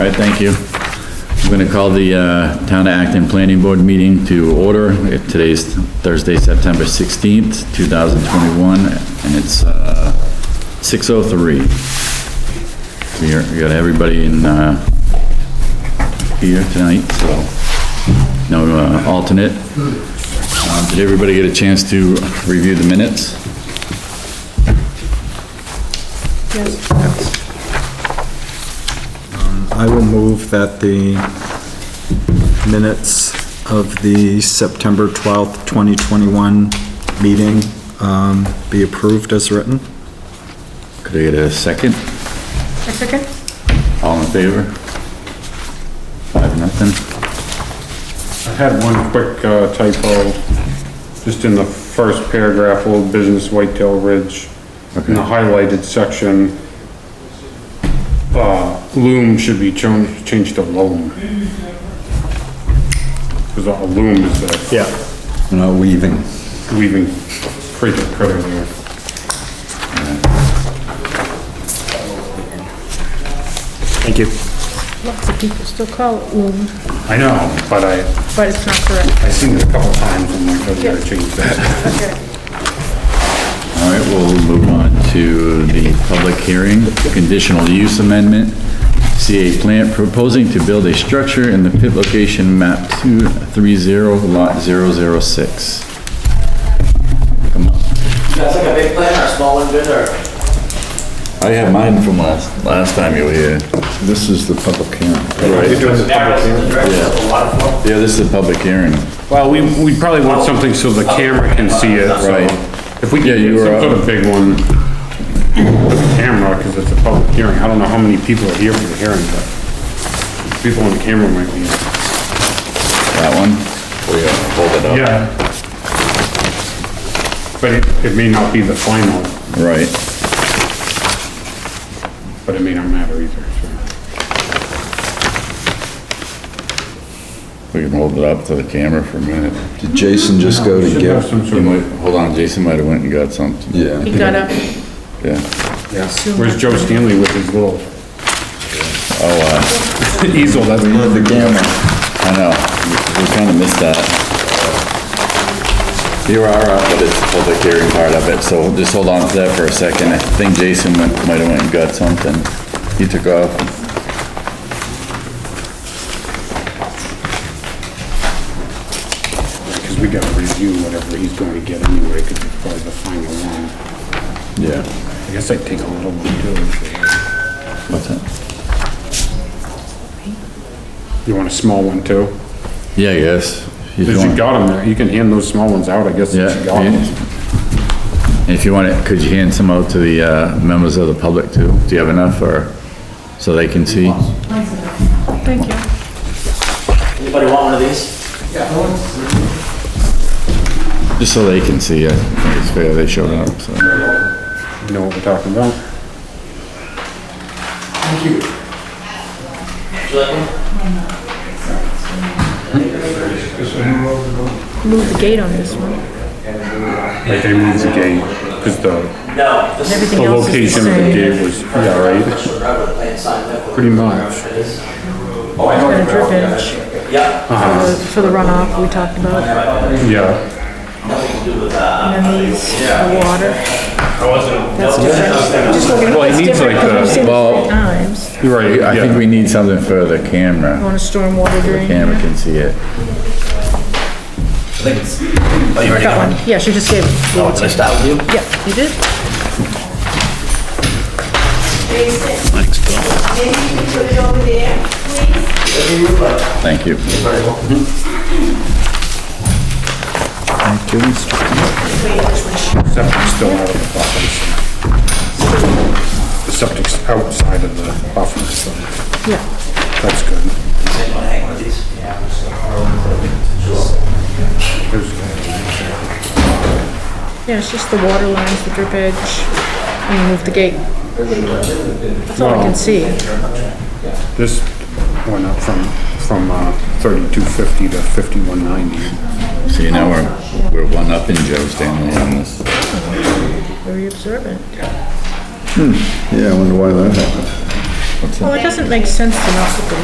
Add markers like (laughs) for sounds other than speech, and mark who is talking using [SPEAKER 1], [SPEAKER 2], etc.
[SPEAKER 1] All right, thank you. I'm going to call the uh, Town of Acton Planning Board meeting to order. Today's Thursday, September 16th, 2021, and it's uh, 6:03. We are- We got everybody in uh, here tonight, so no uh, alternate. Uh, Did everybody get a chance to review the minutes?
[SPEAKER 2] I will move that the minutes of the September 12th, 2021 meeting um, be approved as written.
[SPEAKER 1] Could I get a second?
[SPEAKER 3] A second?
[SPEAKER 1] All in favor? Five, nothing.
[SPEAKER 4] I had one quick uh, typo, just in the first paragraph, Old Business Whitetail Ridge. In the highlighted section, uh, loom should be changed, changed to loam. Because a loom is
[SPEAKER 2] Yeah. No weaving.
[SPEAKER 4] a weaving creature critter there.
[SPEAKER 2] Thank you.
[SPEAKER 3] Lots of people still call it loom,
[SPEAKER 4] I know, but I,
[SPEAKER 3] but it's not correct.
[SPEAKER 4] I seen it a couple times and I'm like, I gotta change that.
[SPEAKER 1] All right, we'll move on to the public hearing, conditional use amendment. CA plant proposing to build a structure in the pit location map 230 lot 006.
[SPEAKER 5] That's like a big plan or a small one, good or?
[SPEAKER 1] I have mine from last, last time you were here. This is the public hearing. Right,
[SPEAKER 5] A lot of fun.
[SPEAKER 1] yeah, this is the public hearing.
[SPEAKER 4] Well, we, we probably want something so the camera can see it, so
[SPEAKER 1] Right.
[SPEAKER 4] If we
[SPEAKER 1] Yeah,
[SPEAKER 4] get
[SPEAKER 1] you
[SPEAKER 4] some
[SPEAKER 1] were uh,
[SPEAKER 4] sort
[SPEAKER 1] out.
[SPEAKER 4] of big one, with a camera, because it's a public hearing, I don't know how many people are here for the hearing, but people on the camera might be.
[SPEAKER 1] That one? We uh, hold it
[SPEAKER 4] Yeah. But it, it may not be the final,
[SPEAKER 1] Right.
[SPEAKER 4] but it may not matter either, so.
[SPEAKER 1] We can hold it up to the camera for a minute.
[SPEAKER 6] Did Jason just go to
[SPEAKER 4] Should have
[SPEAKER 6] give?
[SPEAKER 4] some
[SPEAKER 1] You
[SPEAKER 4] sort of,
[SPEAKER 1] might, hold on, Jason might have went and got something.
[SPEAKER 6] Yeah,
[SPEAKER 3] He got up,
[SPEAKER 1] Yeah.
[SPEAKER 4] yeah. Where's Joe Stanley with his little? Oh, uh. (laughs) Easel, that's.
[SPEAKER 6] the gamma.
[SPEAKER 1] I know, we- we kinda missed that. You are up, but it's the public hearing part of it, so just hold on to that for a second. I think Jason went, might have went and got something. He took off.
[SPEAKER 4] Because we gotta review whatever he's going to get anyway, because it's probably the final one.
[SPEAKER 1] Yeah.
[SPEAKER 4] I guess I'd take a little one too.
[SPEAKER 1] What's that?
[SPEAKER 4] You want a small one too?
[SPEAKER 1] Yeah, I guess. He's
[SPEAKER 4] Because you
[SPEAKER 1] going-
[SPEAKER 4] got them there, you can hand those small ones out, I guess,
[SPEAKER 1] Yeah.
[SPEAKER 4] if you got 'em.
[SPEAKER 1] If you want it, could you hand some out to the, uh, members of the public too? Do you have enough or, so they can see?
[SPEAKER 3] thank you.
[SPEAKER 5] Anybody want one of these?
[SPEAKER 1] Just so they can see, I think it's fair they showed up, so.
[SPEAKER 4] You know what we're talking about?
[SPEAKER 5] Would you like one?
[SPEAKER 3] Move the gate on this one.
[SPEAKER 4] Like they moved the gate, because the,
[SPEAKER 5] No, this is.
[SPEAKER 3] Everything
[SPEAKER 4] the
[SPEAKER 3] else is the
[SPEAKER 4] location of the
[SPEAKER 3] same.
[SPEAKER 4] gate was, yeah, right?
[SPEAKER 5] Sure, I would have planned sign that would-
[SPEAKER 4] Pretty much.
[SPEAKER 5] It is.
[SPEAKER 3] Got a drip edge
[SPEAKER 5] Yeah,
[SPEAKER 4] Uh-huh.
[SPEAKER 3] for the- for the runoff we talked about,
[SPEAKER 4] Yeah,
[SPEAKER 5] nothing to do with that.
[SPEAKER 3] and then these, the water. That's different. Just look at it,
[SPEAKER 4] Well, it
[SPEAKER 3] that's
[SPEAKER 4] needs
[SPEAKER 3] different,
[SPEAKER 4] like
[SPEAKER 3] 'cause
[SPEAKER 4] the-
[SPEAKER 3] we've seen
[SPEAKER 1] well-
[SPEAKER 3] it times.
[SPEAKER 4] you're right,
[SPEAKER 1] I think
[SPEAKER 4] yeah.
[SPEAKER 1] we need something for the camera.
[SPEAKER 3] On a stormwater drain.
[SPEAKER 1] Camera can see it.
[SPEAKER 3] Got one, yeah, she just gave it,
[SPEAKER 5] Oh, did I start with you?
[SPEAKER 3] yeah, you did.
[SPEAKER 7] Maybe you can put it over there, please?
[SPEAKER 1] Thank you.
[SPEAKER 2] Thank you, Mr.
[SPEAKER 4] Septic's still out of the buffer, so. The septic's outside of the buffer, so.
[SPEAKER 3] Yeah.
[SPEAKER 4] That's good.
[SPEAKER 5] Does anyone hang one of these? Yeah.
[SPEAKER 3] Yeah, it's just the water lines, the drip edge, and you move the gate. That's all I can see.
[SPEAKER 4] This went up from, from uh, thirty-two fifty to fifty-one ninety.
[SPEAKER 1] So you know, we're, we're one up in Joe Stanley on this.
[SPEAKER 3] Very observant.
[SPEAKER 6] Yeah, I wonder why that happened.
[SPEAKER 1] What's that?
[SPEAKER 3] Well, it doesn't make sense to not put the